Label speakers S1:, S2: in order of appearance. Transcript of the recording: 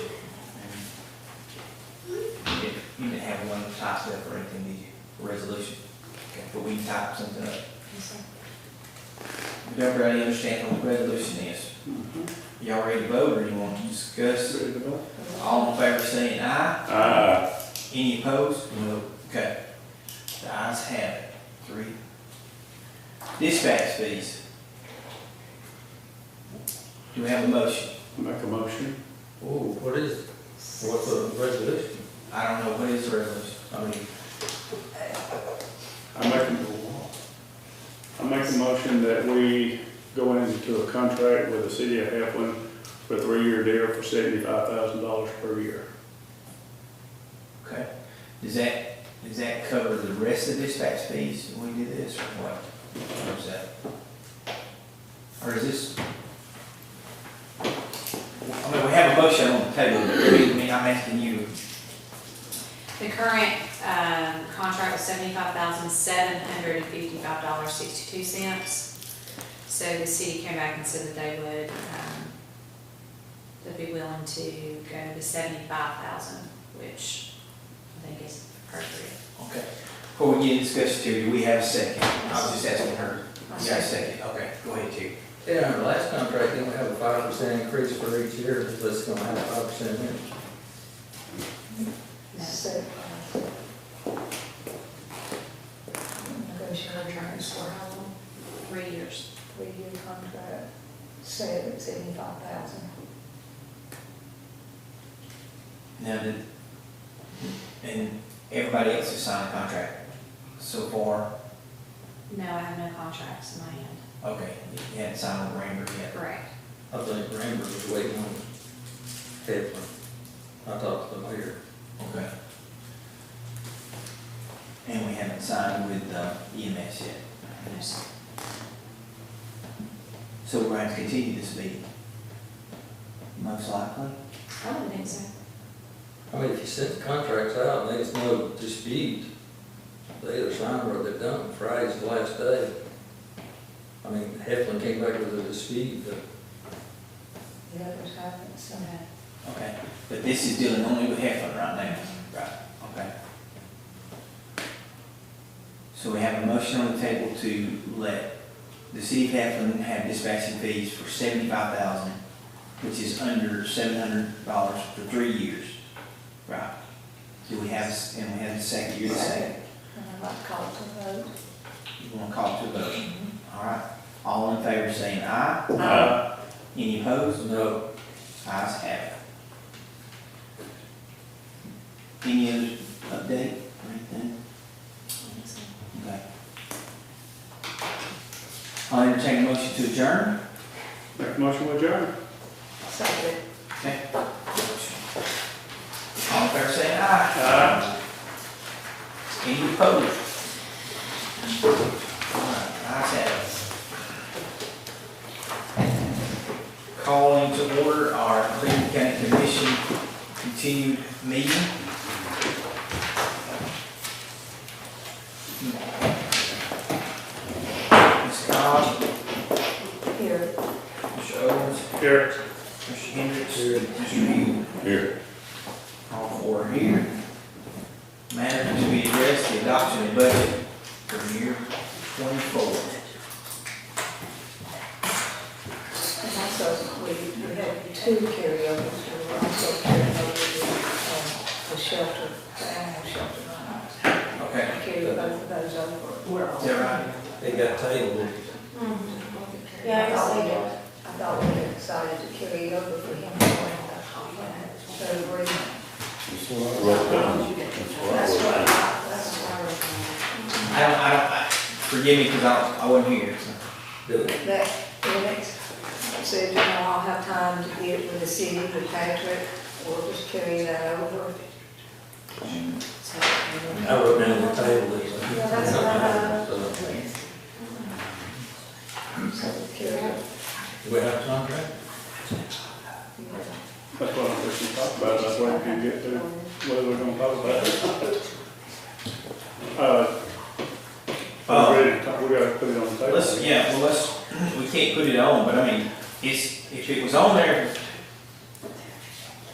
S1: I separate in the resolution, but we can type something up. Does everybody understand what the resolution is? Y'all ready to vote, or you want to discuss? All in favor saying aye,
S2: Aye.
S1: any opposed? No. Okay, the ayes have it, three. Dispatch fees. Do we have a motion?
S2: Make a motion.
S3: Ooh, what is, it? what's the resolution?
S1: I don't know, what is the resolution? I mean,
S2: I make a, I make a motion that we go into a contract with the city of Heflin for a three-year deal for seventy-five thousand dollars per year.
S1: okay, does that, does that cover the rest of dispatch fees when we do this, or what? Or is that? Or is this? I mean, we have a motion on the table, but I mean, I'm asking you,
S4: The current um, contract is seventy-five thousand, seven hundred and fifty-five dollars, sixty-two cents. So the city came back and said that they would, um, they'd be willing to go to the seventy-five thousand, which I think is appropriate.
S1: okay, before we get into discussion, Terry, do we have a second? I was just asking her, you got a second, okay, go ahead, Terry.
S3: Yeah, our last contract, didn't we have a five percent increase for each year, but it's gonna have a five percent here.
S4: No.
S5: So, uh, Negotiate contracts for how long?
S4: Three years.
S5: Three-year contract, seven, seventy-five thousand.
S1: Now, did, and everybody else has signed a contract so far,
S4: No, I have no contracts in my hand.
S1: okay, you hadn't signed with Rambert yet.
S4: Correct.
S3: I think Rambert was waiting on Heflin. I talked to the mayor.
S1: Okay. And we haven't signed with uh, EMS yet,
S4: No, sir.
S1: so we're going to continue this meeting. Most likely.
S4: I don't think so.
S3: I mean, if you sent the contracts out and there's no dispute, they either sign or they don't, Friday's the last day. I mean, Heflin came back with a dispute, but
S5: The others haven't, so.
S4: No.
S1: Okay, but this is dealing only with Heflin right now. Right. Okay. So we have a motion on the table to let the city of Heflin have dispatching fees for seventy-five thousand, which is under seven hundred dollars for three years. Right. Do we have, and we have the second, you're the second.
S5: And I'd like to call it a vote.
S1: You want to call to a vote? All right. All in favor saying aye?
S2: Aye.
S1: Any opposed?
S3: no,
S1: Ayes have it. Any other update or anything?
S4: I don't think so.
S1: Okay. I'll entertain a motion to adjourn.
S2: Make a motion with adjourn.
S5: So that
S1: Okay. All in favor saying aye? Aye. Any opposed? All right, Ayes have it. Calling to order our Cleveland County Commission continued meeting. Ms. Cobb,
S5: here,
S1: Mr. Owens,
S2: Here.
S1: Mr. Hendricks, Mr. Hill.
S2: Here.
S1: All four are here. Matter to be addressed, the adoption of budget for year twenty-four.
S5: And also, we, we had two carryovers, we were also carrying over the, um, the shelter, the animal shelter.
S1: Okay,
S5: Carry both of those over. We're all.
S1: is that right?
S3: it got tabled.
S5: I thought we had- I thought we had decided to carry over for him to the third grade. That's what, I- that's what I recommend.
S1: I don't, I don't, I- forgive me, because I, I wasn't here, so.
S3: Did it?
S5: That, the next, so you know, I'll have time to get with the city, with Patrick, we'll just carry that over.
S4: So,
S3: I wrote down the table. it.
S5: Yeah, that's what I-
S3: So,
S5: So carry over.
S3: Do we have a contract?
S2: That's what I'm fixing to talk about, that's what we can get to, what we're gonna talk about. Uh,
S1: Uh,
S2: we're ready to talk- we gotta put it on the table.
S1: Let's, yeah, well, let's, we can't put it on, but I mean, it's, if it was on there,